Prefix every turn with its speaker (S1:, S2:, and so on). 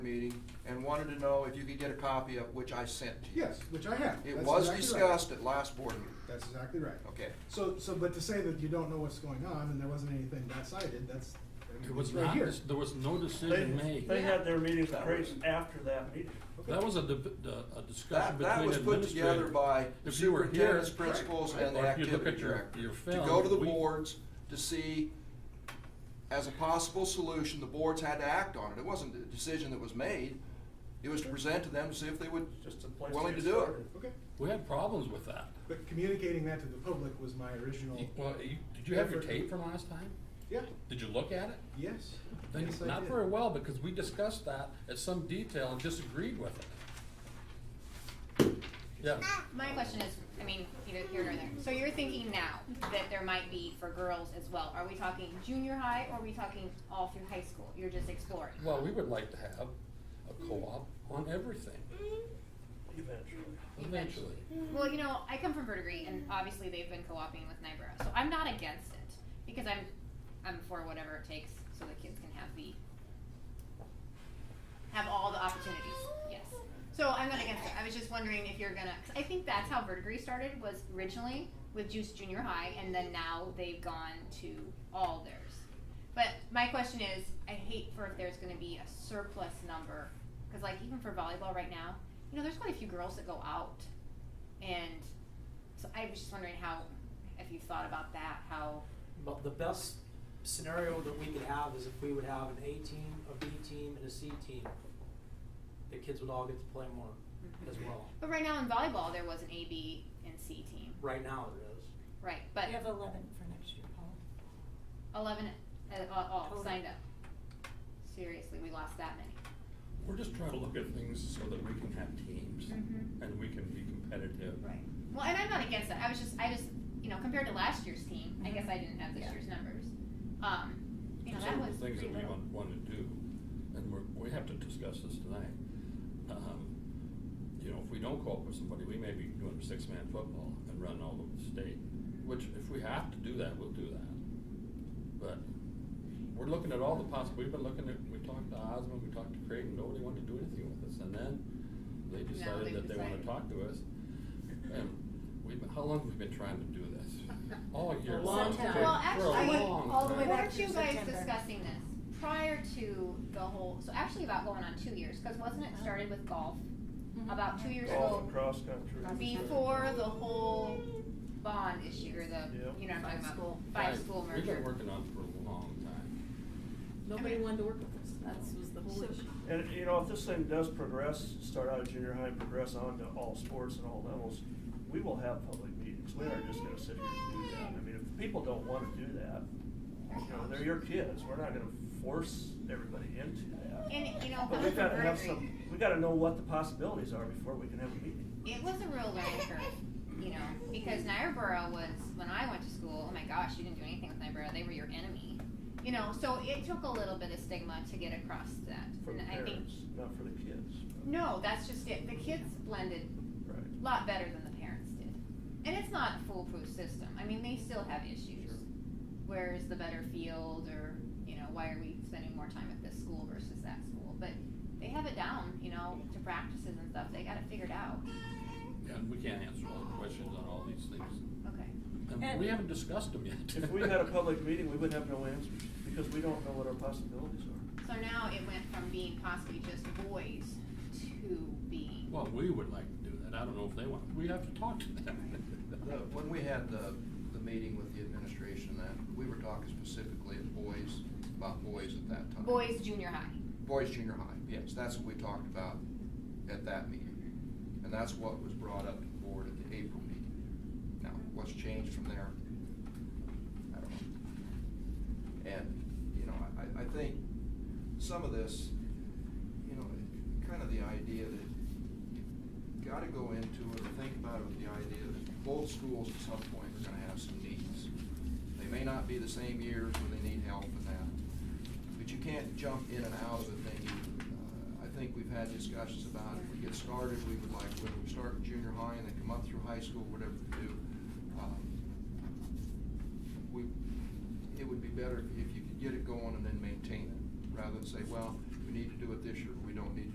S1: meeting and wanted to know if you could get a copy of which I sent to you.
S2: Yes, which I have.
S1: It
S2: That's
S1: was
S2: exactly right.
S1: discussed at last board meeting.
S2: That's exactly right.
S1: Okay.
S2: So, so, but to say that you don't know what's going on and there wasn't anything that cited, that's, I mean,
S3: There was
S2: it's right
S3: not,
S2: here.
S3: there was no
S4: They,
S3: decision made.
S4: they had their meetings right after that meeting.
S2: Okay.
S3: That was a, deb- uh, a
S1: That,
S3: discussion between
S1: that was put
S3: administrators.
S1: together by
S3: If you were here,
S1: superintendents, principals, and the
S3: Or if you look
S1: activity
S3: at your-
S1: director.
S3: your
S1: To go to
S3: film,
S1: the
S3: we-
S1: boards to see, as a possible solution, the boards had to act on it. It wasn't a decision that was made. It was to present to them to see if they would,
S4: Just a place to
S1: willing to
S4: get
S1: do it.
S4: started.
S2: Okay,
S3: we had problems with that.
S2: but communicating that to the public was my original,
S3: You- Well, you, did you have your tape from last time?
S2: yeah,
S3: Did you look at it?
S2: yes.
S3: Then-
S2: Yes, I
S3: Not
S2: did.
S3: very well, because we discussed that at some detail and disagreed with it. Yeah,
S5: My question is, I mean, either here or there. So you're thinking now that there might be for girls as well. Are we talking junior high or are we talking all through high school? You're just exploring.
S3: well, we would like to have a co-op on everything
S4: Eventually.
S3: eventually.
S5: Well, you know, I come from Verdigris and obviously they've been co-oping with Nyborough. So I'm not against it because I'm I'm for whatever it takes so the kids can have the have all the opportunities. Yes. So I'm not against it. I was just wondering if you're gonna. Cause I think that's how Verdigris started was originally with Juice Junior High, and then now they've gone to all theirs. But my question is, I hate for if there's gonna be a surplus number, because like even for volleyball right now, you know, there's quite a few girls that go out, and so I was just wondering how, if you've thought about that, how.
S6: But the best scenario that we could have is if we would have an A team, a B team, and a C team. The kids would all get to play more as well.
S5: But right now in volleyball, there was an A, B, and C team,
S6: Right now it is.
S5: right? But
S7: We have eleven for next year, Paul.
S5: eleven uh, uh, all
S7: Total.
S5: signed up. Seriously, we lost that many.
S3: We're just trying to look at things so that we can have teams
S5: Mhm.
S3: and we can be competitive.
S5: Right. Well, and I'm not against that. I was just, I just, you know, compared to last year's team, I guess I didn't have this
S7: Mm-hmm. Yeah.
S5: year's numbers. Um, you know,
S3: Some
S5: that
S3: of
S5: was
S3: the things
S5: pretty
S3: that we
S5: little.
S3: want, want to do, and we're, we have to discuss this tonight. Um, You know, if we don't co-op with somebody, we may be doing six-man football and run all over the state, which if we have to do that, we'll do that. But we're looking at all the possible, we've been looking at, we talked to Osmond, we talked to Creighton, nobody wanted to do anything with us, and then they
S5: Now
S3: decided
S5: they've
S3: that they want to
S5: decided.
S3: talk to us. And we've, been- how long have we been trying to do this? All year.
S6: A long
S3: For a
S6: time.
S5: Well, actually,
S3: long
S7: all the way
S3: time.
S7: back
S5: weren't
S7: through
S5: you guys
S7: September.
S5: discussing this prior to the whole? So actually, about going on two years, because wasn't
S7: Oh.
S5: it started with golf?
S7: Mm-hmm.
S5: About two years
S4: Golf
S5: ago,
S4: and cross country.
S5: before the whole bond issue or the
S4: Yep.
S5: you know what I'm talking
S7: Five
S5: about
S7: school.
S5: five school merger.
S3: We've been working on it for a long time.
S7: Nobody
S5: Okay.
S7: wanted to work with us, that's was the whole issue.
S4: And, you know, if this thing does progress, start out at junior high and progress on to all sports and all levels, we will have public meetings. We aren't just gonna sit here and do that. I mean, if people don't wanna do that, you know, they're your kids. We're not gonna force everybody into that.
S5: And you know,
S4: But we
S5: coming from
S4: gotta have
S5: Verdigris-
S4: some, we gotta know what the possibilities are before we can have a meeting.
S5: it was a real learning curve, you know, because Niobrara was when I went to school. Oh my gosh, you didn't do anything with Niobrara; they were your enemy, you know. So it took a little bit of stigma to get across that,
S4: For the
S5: and I think
S4: parents, not for the kids.
S5: no, that's just it. The kids blended
S4: Right.
S5: a lot better than the parents did, and it's not a foolproof system. I mean, they still have issues.
S4: Sure.
S5: Where's the better field, or you know, why are we spending more time at this school versus that school? But they have it down, you know, to practices and stuff. They got it figured out.
S3: And we can't answer all the questions on all these things.
S5: Okay.
S3: And
S7: And-
S3: we haven't discussed them yet.
S4: If we had a public meeting, we would have no answers, because we don't know what our possibilities are.
S5: So now it went from being possibly just boys to being.
S3: Well, we would like to do that. I don't know if they want, we have to talk to
S1: The-
S3: them.
S1: When we had the, the meeting with the administration, that, we were talking specifically of boys, about boys at that time.
S5: Boys junior high.
S1: Boys junior high, yes, that's what we talked about at that meeting. And that's what was brought up to the board at the April meeting. Now, what's changed from there? I don't know. And, you know, I, I think some of this, you know, kind of the idea that you gotta go into it, or think about it with the idea that both schools at some point are gonna have some needs. They may not be the same years where they need help and that, but you can't jump in and out of the thing. Uh, I think we've had discussions about if we get started, we would like, when we start in junior high and then come up through high school, whatever we do. um, We, it would be better if you could get it going and then maintain it, rather than say, well, we need to do it this year, but we don't don't need